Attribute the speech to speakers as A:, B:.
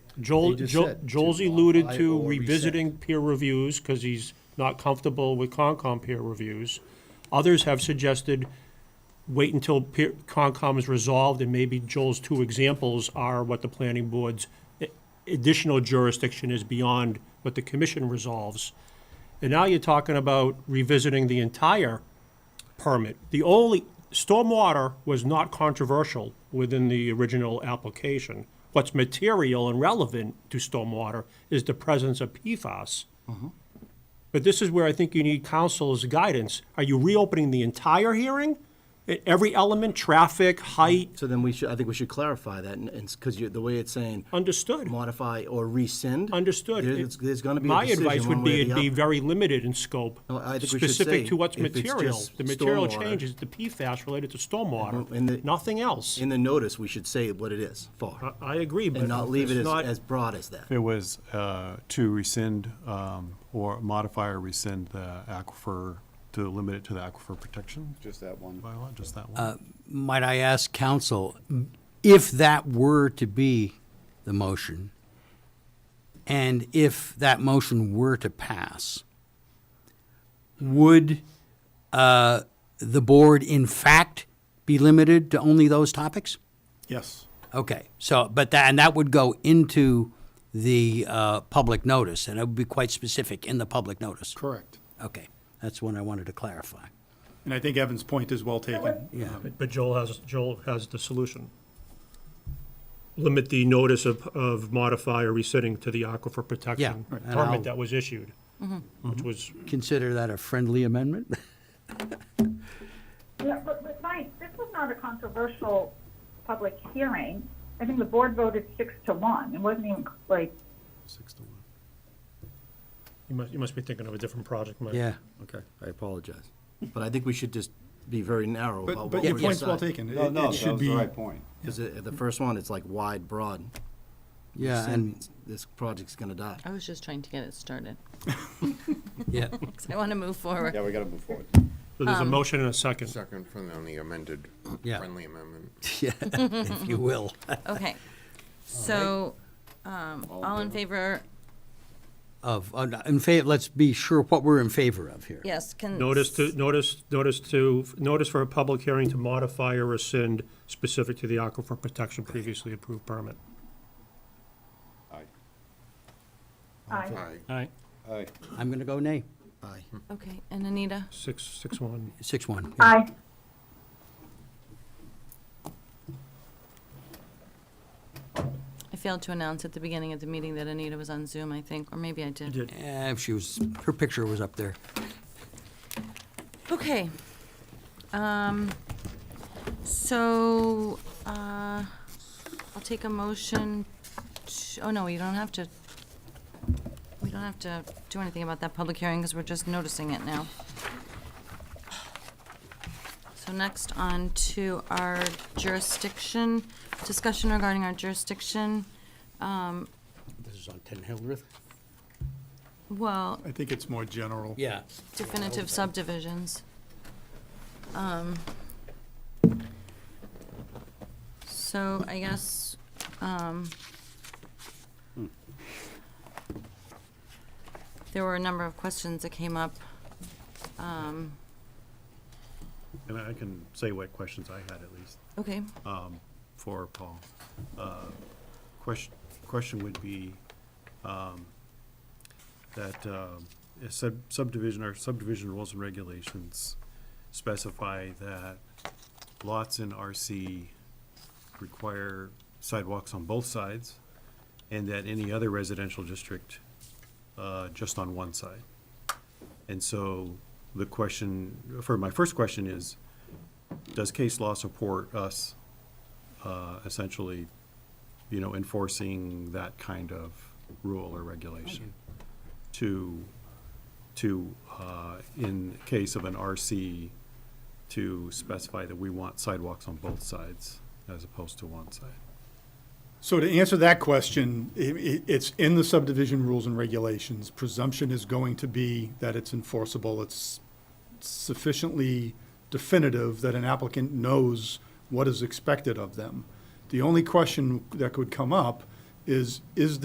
A: Joel,
B: They just
A: Joel-
B: said to
A: Joel's alluded
B: apply
A: to
B: or rescind.
A: revisiting peer reviews, because he's not comfortable with Concom peer reviews. Others have suggested wait until peer, Concom is resolved, and maybe Joel's two examples are what the planning board's a- additional jurisdiction is beyond what the commission resolves. And now you're talking about revisiting the entire permit. The only, stormwater was not controversial within the original application. What's material and relevant to stormwater is the presence of PFAS. But this is where I think you need council's guidance. Are you reopening the entire hearing? E- Every element, traffic, height,
B: So then we should, I think we should clarify that, and, and, because you, the way it's saying
A: understood,
B: modify or rescind.
A: understood.
B: There's, there's gonna be a
A: My
B: decision
A: advice would
B: one
A: be
B: way or
A: it'd
B: the
A: be
B: other.
A: very limited in scope,
B: No, I think we should
A: specific
B: say
A: to what's
B: if it's
A: material.
B: just
A: The material
B: stormwater.
A: change is the PFAS related to
B: And the-
A: stormwater, nothing else.
B: In the notice, we should say what it is
A: I-
B: for,
A: I agree, Uh, but
B: and not leave
A: it's
B: it as,
A: not-
B: as broad as that.
C: It was uh, to rescind um, or modify or rescind the aquifer, to limit it to the aquifer protection
D: Just that one.
C: bylaw, just that one.
E: Might I ask counsel, if that were to be the motion, and if that motion were to pass, would uh, the board in fact be limited to only those topics?
F: Yes.
E: Okay, so, but that, and that would go into the uh, public notice, and it would be quite specific in the public notice?
F: Correct.
E: Okay, that's one I wanted to clarify.
F: And I think Evan's point is well taken.
E: Yeah.
A: But Joel has, Joel has the solution. Limit the notice of, of modify or rescinding to the aquifer protection
E: Yeah, right. And I'll-
A: permit that was issued, which was,
E: Consider that a friendly amendment?
G: Yeah, but, but Mike, this was not a controversial public hearing. I think the board voted six to one. It wasn't even like,
C: Six to one.
A: you must, you must be thinking of a different project, Mike.
E: Yeah.
B: Okay, I apologize. But I think we should just be very narrow about
F: But,
B: what
F: but
B: we
F: your point's well
B: decide.
F: taken.
D: No,
F: It-
D: no,
F: It
D: that
F: should
D: was the
F: be,
D: right point.
B: Because the the first one, it's like wide, broad.
E: Yeah,
B: Rescind
E: and,
B: means This project's gonna die.
H: I was just trying to get it started,
E: yeah.
H: 'cause I want to move forward.
D: Yeah, we gotta move forward.
A: So there's a motion and a second.
I: Second from the- on the amended,
E: Yeah.
I: friendly amendment.
E: Yeah, if you will.
H: Okay. So, um, all in favor,
E: Of, uh, in favor, let's be sure what we're in favor of here.
H: yes, can.
A: Notice to, notice, notice to, notice for a public hearing to modify or rescind specific to the aquifer protection previously approved permit.
D: Aye.
G: I,
I: Aye.
A: Aye.
D: Aye.
E: I'm going to go nay.
B: Aye.
H: Okay, and Anita?
A: Six, six, one.
E: Six one.
G: I,
H: I failed to announce at the beginning of the meeting that Anita was on Zoom, I think, or maybe I did.
A: did.
E: Eh, if she was, her picture was up there.
H: Okay. Um, so, uh, I'll take a motion, to- oh, no, you don't have to, we don't have to do anything about that public hearing, because we're just noticing it now. So next on to our jurisdiction, discussion regarding our jurisdiction.
E: This is on Ten Hildreth?
H: Well,
F: I think it's more general.
E: Yeah.
H: definitive subdivisions. Um, so I guess, um, there were a number of questions that came up.
C: And I can say what questions I had at least.
H: Okay,
C: for Paul. Uh, Question, question would be um, that um, a sub- subdivision, our subdivision rules and regulations specify that lots in RC require sidewalks on both sides, and that any other residential district uh, just on one side. And so the question, for my first question is, does case law support us uh, essentially, you know, enforcing that kind of rule or regulation to, to, uh, in case of an RC, to specify that we want sidewalks on both sides as opposed to one side.
F: So to answer that question, i- i it's in the subdivision rules and regulations. Presumption is going to be that it's enforceable. It's sufficiently definitive that an applicant knows what is expected of them. The only question that could come up is, is